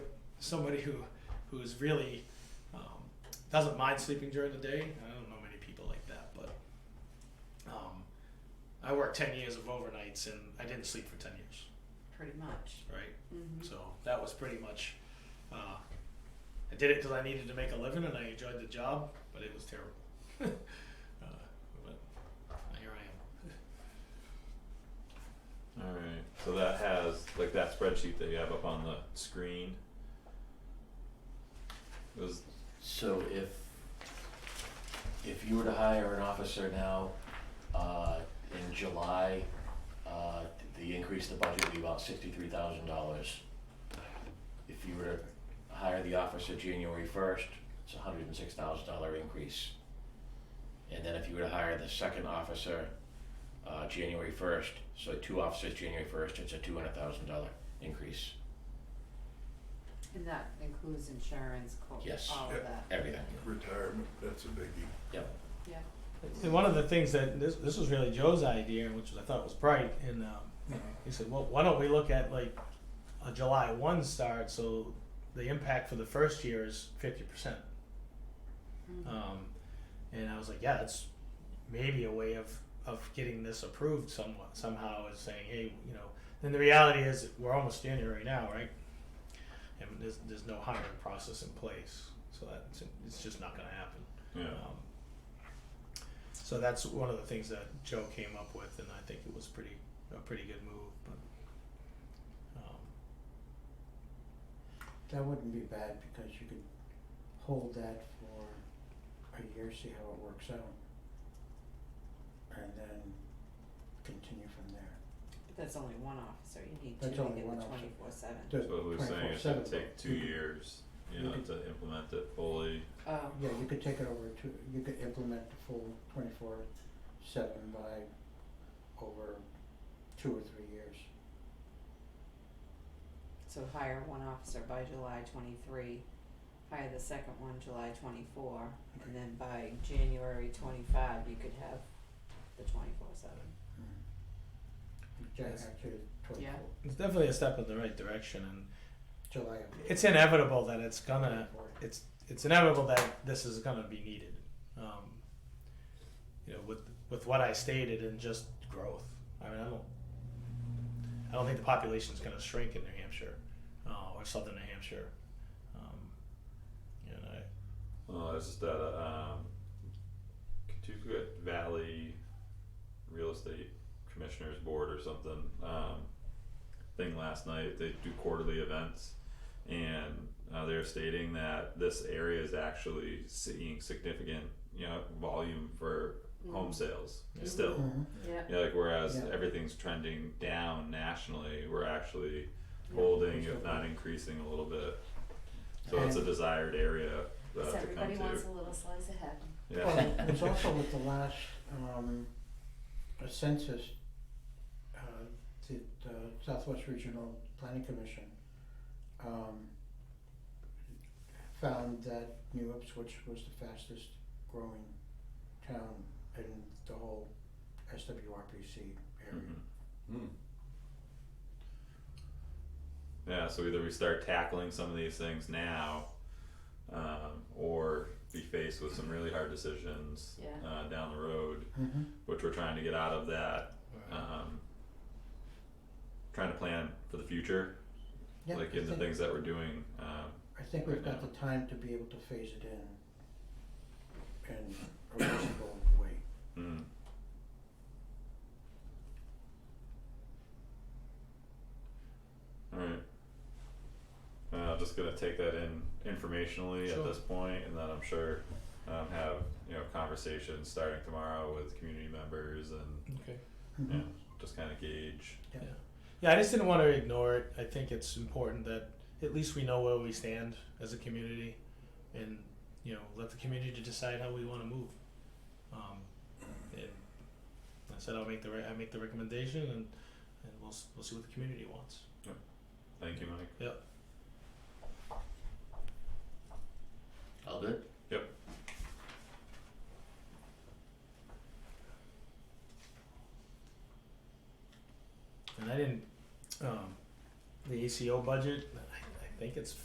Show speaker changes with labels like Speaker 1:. Speaker 1: somebody who who's really um, doesn't mind sleeping during the day. I don't know many people like that, but um, I worked ten years of overnights and I didn't sleep for ten years,
Speaker 2: pretty much.
Speaker 1: right?
Speaker 2: Mm-hmm.
Speaker 1: So that was pretty much. Uh, I did it because I needed to make a living and I enjoyed the job, but it was terrible. uh, but here I am.
Speaker 3: Alright, so that has, like that spreadsheet that you have up on the screen. Was,
Speaker 4: So if, if you were to hire an officer now, uh, in July, uh, the increase to budget would be about sixty-three thousand dollars. If you were to hire the officer January first, it's a hundred and six thousand dollar increase. And then if you were to hire the second officer, uh, January first, so two officers January first, it's a two hundred thousand dollar increase,
Speaker 2: And that includes insurance, co-
Speaker 4: Yes.
Speaker 2: all of
Speaker 5: Yeah.
Speaker 2: that.
Speaker 4: everything,
Speaker 5: Retirement, that's a biggie.
Speaker 4: yep.
Speaker 2: Yeah.
Speaker 1: And one of the things that this this was really Joe's idea, which I thought was bright, and um,
Speaker 5: Uh,
Speaker 1: he said, "Well, why don't we look at like a July one start? So the impact for the first year is fifty percent."
Speaker 2: Mhm.
Speaker 1: Um, and I was like, "Yeah, that's maybe a way of of getting this approved somewhat somehow." Is saying, "Hey, you know." Then the reality is we're almost January right now, right? And there's there's no hiring process in place, so that's it's just not going to happen.
Speaker 3: yeah,
Speaker 1: Um, so that's one of the things that Joe came up with, and I think it was pretty a pretty good move. But um,
Speaker 6: That wouldn't be bad because you could hold that for a year, see how it works out. And then continue from there.
Speaker 2: But that's only one officer, you need to
Speaker 6: That's
Speaker 2: make
Speaker 6: only
Speaker 2: it
Speaker 6: one
Speaker 2: the
Speaker 6: officer.
Speaker 2: twenty-four seven.
Speaker 6: The
Speaker 3: so we were saying it should
Speaker 6: 24/7
Speaker 3: take two
Speaker 6: Mm-hmm.
Speaker 3: years, you
Speaker 6: You
Speaker 3: know,
Speaker 6: could-
Speaker 3: to implement it fully,
Speaker 2: Oh,
Speaker 6: Yeah, you could take it over to, you could implement the full twenty-four seven by over two or three years.
Speaker 2: so hire one officer by July twenty-three, hire the second one July twenty-four, and then by January twenty-five, you could have the twenty-four seven.
Speaker 6: Ju-
Speaker 1: Yes.
Speaker 6: Actually,
Speaker 2: Yeah.
Speaker 6: twenty-four,
Speaker 1: it's definitely a step in the right direction, and
Speaker 6: July of.
Speaker 1: it's inevitable that it's gonna
Speaker 6: 24.
Speaker 1: it's it's inevitable that this is gonna be needed. Um, you know, with with what I stated and just growth. I mean, I don't I don't think the population's gonna shrink in New Hampshire uh, or Southern New Hampshire. Um, and I,
Speaker 3: uh, it's just that, uh, um. Katuka Valley Real Estate Commissioners Board or something, um, thing last night, they do quarterly events. And, uh, they're stating that this area is actually seeing significant, you know, volume for home sales
Speaker 1: Yeah.
Speaker 3: still.
Speaker 6: Mhm.
Speaker 2: Yeah,
Speaker 3: Yeah, like whereas
Speaker 6: Yeah.
Speaker 3: everything's trending down nationally, we're actually
Speaker 2: Yeah.
Speaker 3: holding,
Speaker 6: Sure.
Speaker 3: if not increasing, a little bit. So it's a desired area uh, to come to.
Speaker 2: a little slice of heaven.
Speaker 3: Yeah.
Speaker 6: Well, it's also with the last, um, uh, census, uh, the, the Southwest Regional Planning Commission, um, found that New Ipswich was the fastest growing town in the whole SWRPC area.
Speaker 3: Mhm. Yeah, so either we start tackling some of these things now, um, or be faced with some really hard decisions
Speaker 2: Yeah.
Speaker 3: uh, down the road,
Speaker 6: Mm-hmm.
Speaker 3: which we're trying to get out of that um, trying to plan for the future,
Speaker 6: Yeah,
Speaker 3: like
Speaker 6: I
Speaker 3: in the
Speaker 6: think-
Speaker 3: things that we're doing. Um,
Speaker 6: I think we've got the time to be able to phase it in in a reasonable way.
Speaker 3: mm. All right. Uh, just gonna take that in informationally
Speaker 1: Sure.
Speaker 3: at this point, and then I'm sure um, have you know conversations starting tomorrow with community members and
Speaker 1: okay.
Speaker 6: Mhm.
Speaker 3: yeah, just kind of gauge.
Speaker 6: Yeah.
Speaker 1: Yeah, I just didn't want to ignore it. I think it's important that at least we know where we stand as a community, and you know, let the community decide how we want to move. Um, and I said I'll make the re- I make the recommendation, and and we'll s- we'll see what the community wants.
Speaker 3: Thank you, Mike.
Speaker 4: All good?
Speaker 3: Yep.
Speaker 1: And I didn't um, the ACO budget. I, I think it's